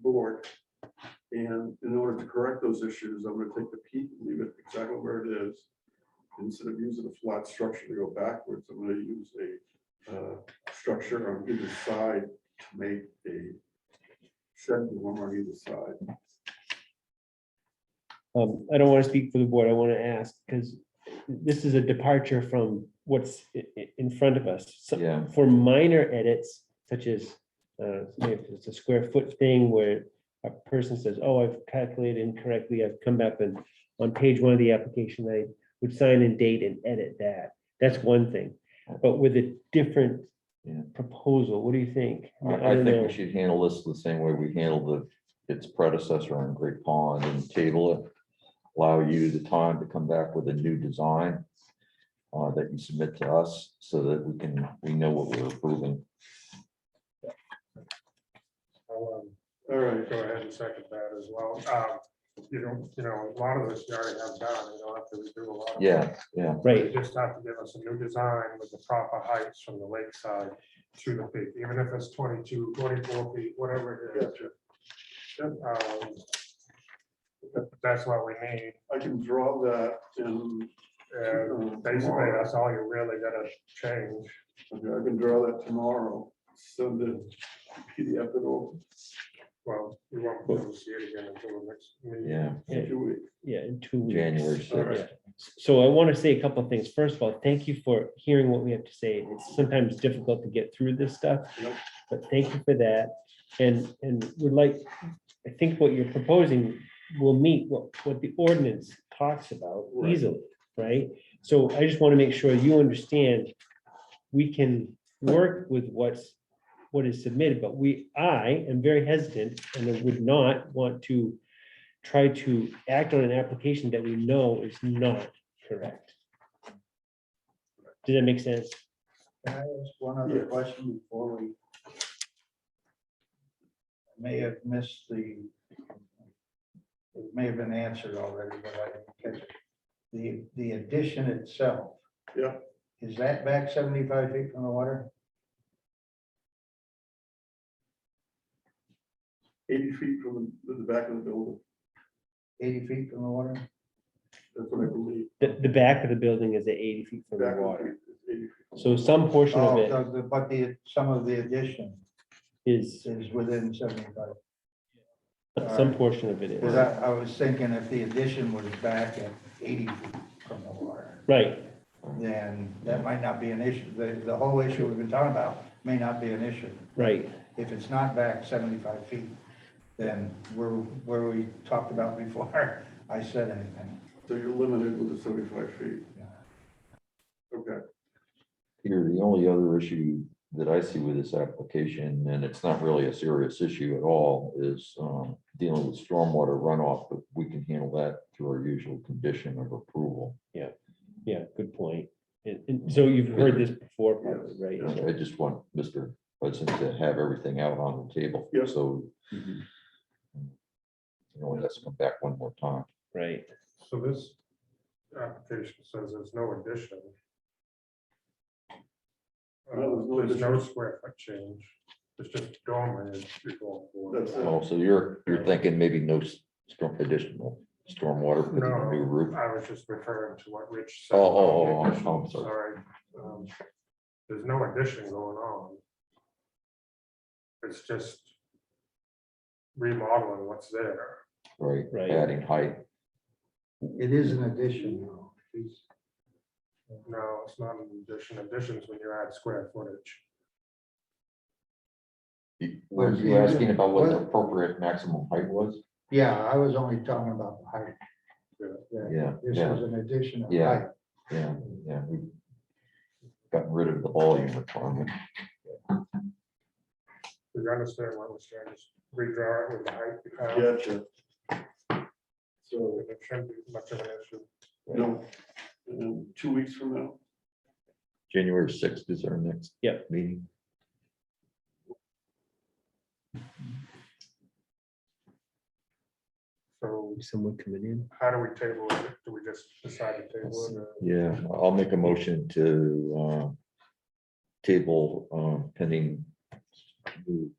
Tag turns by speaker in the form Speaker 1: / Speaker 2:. Speaker 1: board. And in order to correct those issues, I'm gonna take the peak, leave it exactly where it is. Instead of using a flat structure to go backwards, I'm gonna use a uh, structure on either side to make a shed dorm on either side.
Speaker 2: Um, I don't want to speak for the board. I want to ask, because this is a departure from what's i- i- in front of us. So
Speaker 3: Yeah,
Speaker 2: for minor edits such as, uh, maybe it's a square foot thing where a person says, oh, I've calculated incorrectly, I've come back and on page one of the application, I would sign and date and edit that. That's one thing, but with a different
Speaker 3: Yeah.
Speaker 2: proposal, what do you think?
Speaker 3: I,
Speaker 2: I
Speaker 3: I
Speaker 2: don't
Speaker 3: think
Speaker 2: know.
Speaker 3: we should handle this the same way we handled the, its predecessor on Great Pond and table it. Allow you the time to come back with a new design uh, that you submit to us so that we can, we know what we're approving.
Speaker 4: I'll um,
Speaker 1: All right,
Speaker 4: go ahead and second that as well. Um, You know, you know, a lot of this you already have done, you don't have to redo a lot. of it.
Speaker 3: Yeah, yeah,
Speaker 2: Right,
Speaker 4: You just have to give us a new design with the proper heights from the lakeside to the peak, even if it's 22, 24 feet, whatever it is. Um, That's what we need,
Speaker 1: I can draw that in.
Speaker 4: and
Speaker 1: uh,
Speaker 4: basically,
Speaker 1: tomorrow.
Speaker 4: that's all you really gotta change.
Speaker 1: Okay, I can draw that tomorrow, send it PDF it over
Speaker 4: Well, you won't be able to see it again until the next meeting.
Speaker 3: yeah,
Speaker 1: in two weeks.
Speaker 2: yeah, in two weeks.
Speaker 3: January
Speaker 1: All
Speaker 3: sixth.
Speaker 1: right.
Speaker 2: Yeah. So I want to say a couple of things. First of all, thank you for hearing what we have to say. It's sometimes difficult to get through this stuff.
Speaker 1: Yep.
Speaker 2: But thank you for that. And, and would like, I think what you're proposing will meet what, what the ordinance talks about
Speaker 1: Right.
Speaker 2: easily, right? So I just want to make sure you understand, we can work with what's, what is submitted, but we, I am very hesitant and would not want to try to act on an application that we know is not correct. Does that make sense?
Speaker 5: Can I ask one
Speaker 1: Yeah.
Speaker 5: other question before we? I May have missed the. It may have been answered already, but I didn't catch it. The, the addition itself.
Speaker 1: Yeah.
Speaker 5: Is that back seventy-five feet from the water?
Speaker 1: Eighty feet from the the back of the building,
Speaker 5: Eighty feet from the water?
Speaker 1: that's what I believe.
Speaker 2: The, the back of the building is at eighty feet from the
Speaker 1: Back of
Speaker 2: water.
Speaker 1: the- is 80 feet.
Speaker 2: So some portion of
Speaker 5: Oh,
Speaker 2: it
Speaker 5: so the- But the, some of the addition
Speaker 2: is,
Speaker 5: is within seventy-five.
Speaker 2: some portion of it
Speaker 5: Because
Speaker 2: is,
Speaker 5: I, I was thinking if the addition was back at eighty feet from the water.
Speaker 2: right,
Speaker 5: then that might not be an issue. The, the whole issue we've been talking about may not be an issue.
Speaker 2: right.
Speaker 5: If it's not back 75 feet, then we're, where we talked about before I said anything.
Speaker 1: So you're limited with the seventy-five feet.
Speaker 5: Yeah.
Speaker 1: Okay,
Speaker 3: Peter, the only other issue that I see with this application, and it's not really a serious issue at all, is um, dealing with stormwater runoff, but we can handle that through our usual condition of approval.
Speaker 2: Yeah, good point. And, and so you've heard this before, probably,
Speaker 3: You
Speaker 2: right?
Speaker 3: know, I just want Mr. Hudson to have everything out on the table.
Speaker 1: Yeah.
Speaker 3: So Mm-hmm.
Speaker 2: Mhm.
Speaker 3: you know, let's come back one more time.
Speaker 2: Right,
Speaker 4: So this application says there's no addition. Uh,
Speaker 1: No, there's no
Speaker 4: There's no square foot change, it's just dormer is equal.
Speaker 1: That's it.
Speaker 2: Oh.
Speaker 3: Also, Oh, you're, you're thinking maybe no s- storm, additional stormwater for the new roof.
Speaker 4: No, I was just referring to what Rich said.
Speaker 3: Oh, oh,
Speaker 4: about the
Speaker 3: oh,
Speaker 4: addition,
Speaker 3: oh, I'm sorry.
Speaker 4: Um, There's no addition going on. It's just remodeling what's there.
Speaker 3: Right,
Speaker 2: Right.
Speaker 3: adding height.
Speaker 5: It is an addition though. It's-
Speaker 4: No, it's not an addition, additions when you add square footage.
Speaker 3: Were you asking about what the appropriate maximum height was?
Speaker 5: Yeah, I was only talking about the height. That
Speaker 3: Yeah,
Speaker 5: This
Speaker 3: yeah.
Speaker 5: was an addition of
Speaker 3: Yeah.
Speaker 5: height.
Speaker 3: Yeah, yeah, we've gotten rid of the volume requirement.
Speaker 4: Do you understand what I'm saying? Just redraw it with the height. you have.
Speaker 1: gotcha. So,
Speaker 4: It shouldn't be much of an issue.
Speaker 1: no, um, two weeks from now,
Speaker 3: January sixth is our next.
Speaker 2: Yep.
Speaker 3: Meeting.
Speaker 4: So
Speaker 2: someone coming in.
Speaker 4: how do we table it? Do we just decide to table it? or-
Speaker 3: Yeah, I'll make a motion to uh, table uh, pending new